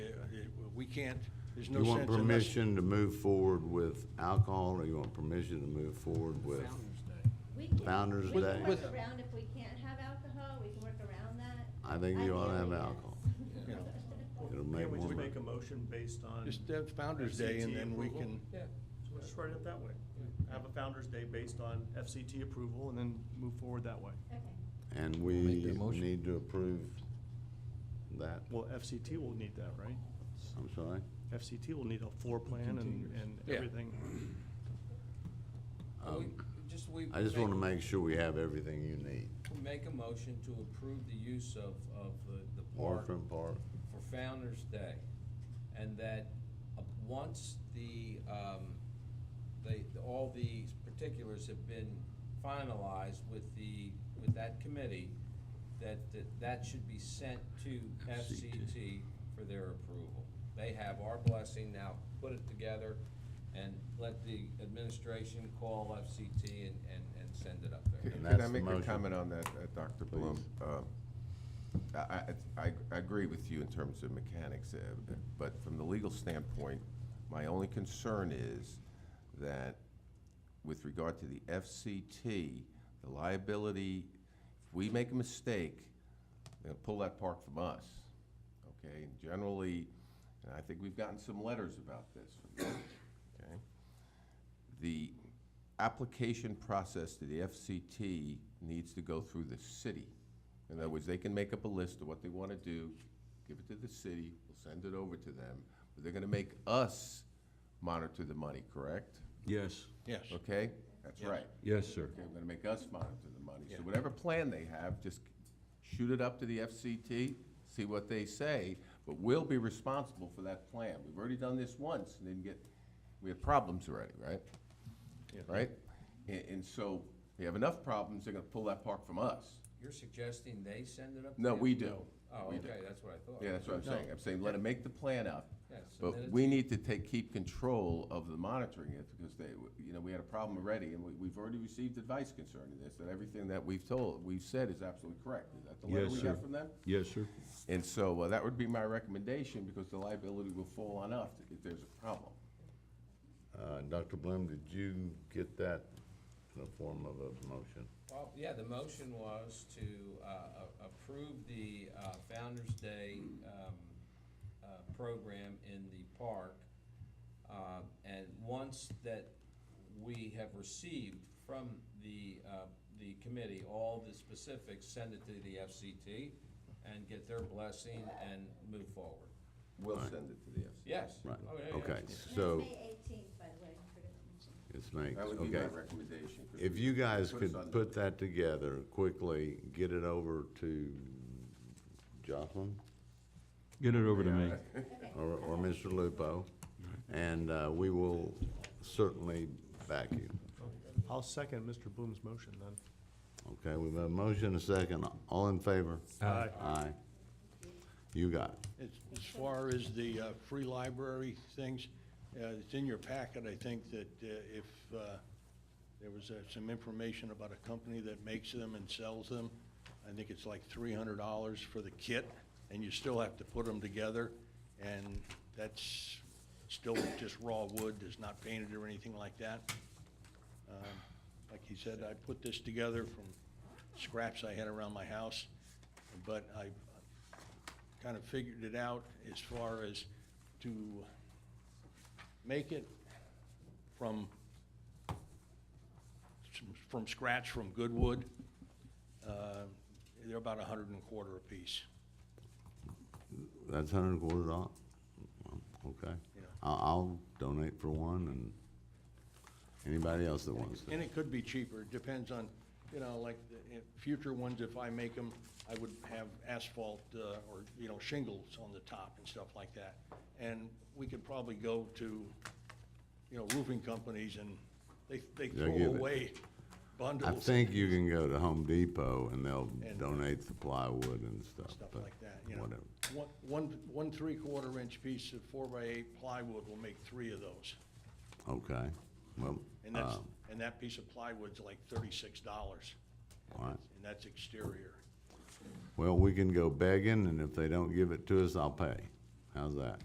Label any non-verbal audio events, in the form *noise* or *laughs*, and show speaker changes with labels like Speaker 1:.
Speaker 1: we can't, there's no
Speaker 2: You
Speaker 1: sense
Speaker 2: want
Speaker 1: in us.
Speaker 2: permission to move forward with alcohol, or you want permission to move forward with?
Speaker 3: We can-
Speaker 2: Founder's
Speaker 3: we
Speaker 2: Day.
Speaker 3: can
Speaker 1: With-
Speaker 3: work around if we can't have alcohol, we can work around that.
Speaker 2: I think you ought to have
Speaker 3: Ideally, yes.
Speaker 2: alcohol.
Speaker 1: Yeah.
Speaker 2: It'll
Speaker 4: Can't
Speaker 2: make
Speaker 4: we just
Speaker 2: more.
Speaker 4: make a motion based on?
Speaker 1: Just uh, Founder's Day and
Speaker 4: FCT
Speaker 1: then we
Speaker 4: approval?
Speaker 1: can,
Speaker 4: Yeah, so let's write it that way. Have a Founder's Day based on FCT approval and then move forward that way.
Speaker 3: *laughs* Okay.
Speaker 2: And
Speaker 5: Make
Speaker 2: we
Speaker 5: that motion.
Speaker 2: need to approve that.
Speaker 4: Well, FCT will need that, right?
Speaker 2: I'm sorry?
Speaker 4: FCT will need a floor plan and, and
Speaker 1: Yeah.
Speaker 4: everything.
Speaker 2: Um,
Speaker 5: Just we.
Speaker 2: I just want to make sure we have everything you need.
Speaker 5: Make a motion to approve the use of, of the- the park
Speaker 2: Orphan Park,
Speaker 5: for Founder's Day. And that, uh, once the, um, they, all the particulars have been finalized with the, with that committee, that, that, that should be sent to FCT for their approval. They have our blessing now, put it together and let the administration call FCT and, and, and send it up there.
Speaker 2: And
Speaker 6: Can-
Speaker 2: that's
Speaker 6: Can I
Speaker 2: the
Speaker 6: make a
Speaker 2: motion.
Speaker 6: comment on that, uh, Dr. Bloom? Um, I, I- I- I agree with you in terms of mechanics, uh, but from the legal standpoint, my only concern is that with regard to the FCT, the liability, if we make a mistake, they'll pull that park from us, okay? And Generally, and I think we've gotten some letters about this, from them, okay? the application process to the FCT needs to go through the city. In other words, they can make up a list of what they want to do, give it to the city, we'll send it over to them. But they're going to make us monitor the money, correct?
Speaker 7: Yes,
Speaker 1: yes.
Speaker 6: Okay? That's right.
Speaker 7: yes, sir.
Speaker 6: Okay, they're going to make us monitor the money.
Speaker 1: Yeah.
Speaker 6: So whatever plan they have, just shoot it up to the FCT, see what they say, but we'll be responsible for that plan. We've already done this once and didn't get, we had problems already, right? Right? And, and so we have enough problems, they're gonna pull that park from us.
Speaker 5: You're suggesting they send it up?
Speaker 6: No,
Speaker 5: there?
Speaker 6: we do.
Speaker 5: Oh,
Speaker 6: We do.
Speaker 5: okay, that's what I thought.
Speaker 6: Yeah, that's what I'm saying. I'm saying let them make the plan up.
Speaker 5: Yeah, so then
Speaker 6: But
Speaker 5: it's-
Speaker 6: we need to take, keep control of the monitoring it because they, you know, we had a problem already and we, we've already received advice concerning this, that everything that we've told, we've said is absolutely correct. Is that the letter
Speaker 7: Yes,
Speaker 6: we
Speaker 7: sir.
Speaker 6: got from them?
Speaker 7: Yes, sir.
Speaker 6: And so uh, that would be my recommendation because the liability will fall on us if there's a problem.
Speaker 2: Uh, Dr. Bloom, did you get that in the form of a motion?
Speaker 5: Well, yeah, the motion was to uh, a- approve the uh, Founder's Day um, uh, program in the park. Uh, And once that we have received from the, uh, the committee all the specifics, send it to the FCT and get their blessing and move forward.
Speaker 6: We'll send it to the FCC.
Speaker 5: Yes.
Speaker 2: Right,
Speaker 5: Oh, yeah, yeah.
Speaker 2: okay,
Speaker 3: And
Speaker 2: so
Speaker 3: It's May eighteenth, by the way, I forgot to mention.
Speaker 2: it's May,
Speaker 6: That would be
Speaker 2: okay.
Speaker 6: my recommendation. Chris.
Speaker 2: If you guys
Speaker 6: Put us
Speaker 2: could
Speaker 6: on
Speaker 2: put that together quickly, get it over to Jocelyn
Speaker 7: Get it over to me.
Speaker 6: *laughs*
Speaker 2: or, or Mr. Lupo, and, uh, we will certainly back you.
Speaker 4: I'll second Mr. Bloom's motion then.
Speaker 2: Okay, we've got a motion, a second, all in favor?
Speaker 1: Uh,
Speaker 4: Aye.
Speaker 2: Aye. You got it.
Speaker 1: As, as far as the, uh, free library things, uh, it's in your packet, I think, that, uh, if, uh, there was, uh, some information about a company that makes them and sells them. I think it's like three hundred dollars for the kit, and you still have to put them together, and that's still just raw wood, it's not painted or anything like that. Um, Like he said, I put this together from scraps I had around my house, but I kind of figured it out as far as to make it from, from scratch, from good wood. Uh, They're about a hundred and a quarter apiece.
Speaker 2: That's hundred and quarter dollars? Okay.
Speaker 1: Yeah.
Speaker 2: I'll, I'll donate for one and anybody else that wants to.
Speaker 1: And it could be cheaper, it depends on, you know, like, the in future ones, if I make them, I would have asphalt, uh, or, you know, shingles on the top and stuff like that. And we could probably go to, you know, roofing companies and they, they
Speaker 2: They'll
Speaker 1: throw
Speaker 2: give it.
Speaker 1: away bundles.
Speaker 2: I think you can go to Home Depot and they'll
Speaker 1: And-
Speaker 2: donate the plywood and stuff.
Speaker 1: stuff
Speaker 2: but
Speaker 1: like that, you know.
Speaker 2: Whatever.
Speaker 1: One, one, one three-quarter inch piece of four by eight plywood will make three of those.
Speaker 2: Okay, well,
Speaker 1: And that's,
Speaker 2: um,
Speaker 1: and that piece of plywood's like thirty-six dollars.
Speaker 2: All right.
Speaker 1: And that's exterior.
Speaker 2: well, we can go begging and if they don't give it to us, I'll pay. How's that?